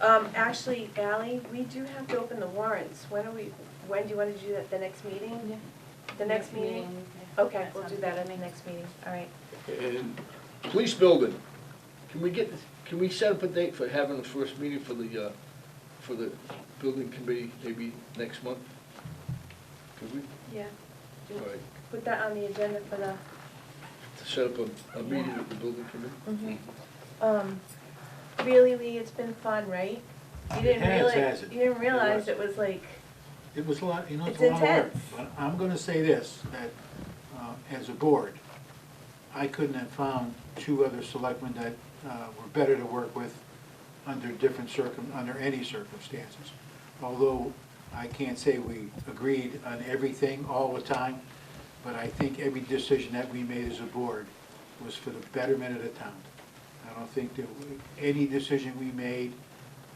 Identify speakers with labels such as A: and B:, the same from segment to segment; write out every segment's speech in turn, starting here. A: Um, actually, Ally, we do have to open the warrants. When are we, when do you want to do that, the next meeting? The next meeting? Okay, we'll do that at the next meeting, all right.
B: And police building, can we get, can we set up a date for having the first meeting for the, uh, for the building committee, maybe next month? Could we,
A: Yeah.
B: all right,
A: Put that on the agenda for the,
B: to set up a, a meeting with the building committee?
A: Mm-hmm. um, really, Lee, it's been fun, right? You didn't
C: It has,
A: realize,
C: has it?
A: you didn't realize
C: was.
A: it was like,
C: It was a lot, you know, it's a
A: It's
C: lot of work.
A: intense.
C: But I'm gonna say this, that uh, as a board, I couldn't have found two other selectmen that uh, were better to work with under different circum, under any circumstances. Although I can't say we agreed on everything all the time, but I think every decision that we made as a board was for the betterment of the town. I don't think that we- any decision we made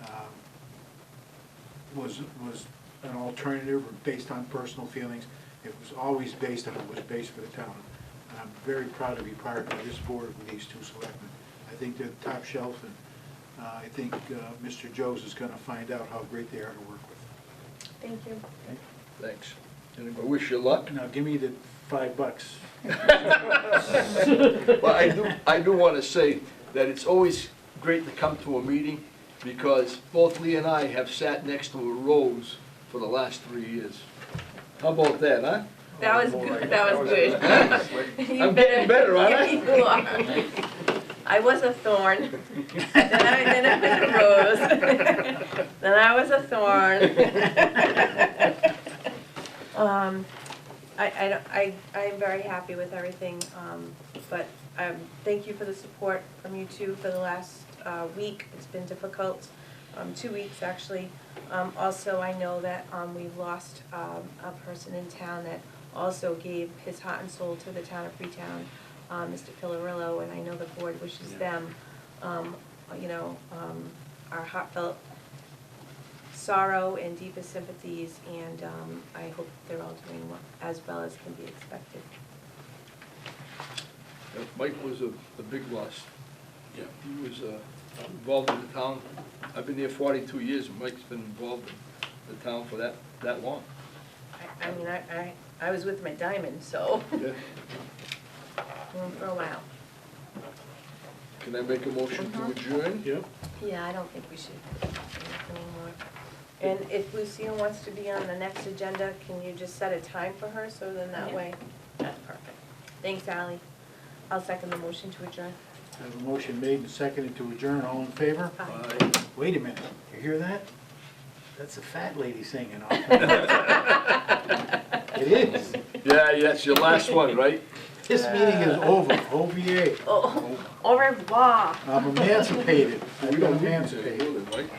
C: um, was, was an alternative or based on personal feelings. It was always based on, it was based for the town. And I'm very proud to be part of this board with these two selectmen. I think they're top shelf, and uh, I think uh, Mr. Joes is gonna find out how great they are to work with.
A: thank you.
B: Thanks. And I wish you luck.
C: Now, give me the five bucks.
B: Well, I do, I do want to say that it's always great to come to a meeting because both Lee and I have sat next to a rose for the last three years. How about that, huh?
A: That was good, that was good. You
B: I'm getting better, aren't I?
A: Yeah, you are. I was a thorn, then I, then I was a rose, then I was a thorn. Um, I, I, don't- I, I'm very happy with everything, um, but, um, thank you for the support from you two for the last, uh, week. It's been difficult, um, two weeks actually. Um, also, I know that, um, we've lost, um, a person in town that also gave his heart and soul to the town of Freetown, uh, Mr. Pillarillo, and I know the board wishes
C: Yeah.
A: them, um, you know, um, our heartfelt sorrow and deepest sympathies, and, um, I hope they're all doing well- as well as can be expected.
B: Yeah, Mike was a, a big loss. Yeah. He was uh, involved in the town, I've been there forty-two years, and Mike's been involved in the town for that, that long.
A: I, I mean, I, I, I was with my diamond, so,
B: Yeah.
A: for a while.
B: Can I make a motion to
A: Mhm.
B: adjourn?
C: Yep.
A: Yeah, I don't think we should do anything anymore. And if Lucille wants to be on the next agenda, can you just set a time for her, so then that
D: Yeah.
A: way? That's perfect. Thanks, Ally. I'll second the motion to adjourn.
C: I have a motion made and seconded to adjourn, all in favor?
B: Aye.
C: Wait a minute, you hear that? That's a fat lady singing. It is.
B: Yeah, yeah, it's your last one, right?
C: This meeting is over, OVA.
A: Oh, au revoir.
C: I'm emancipated.
B: We
C: I've
B: don't
C: been
B: need to,
C: emancipated.
B: really, right?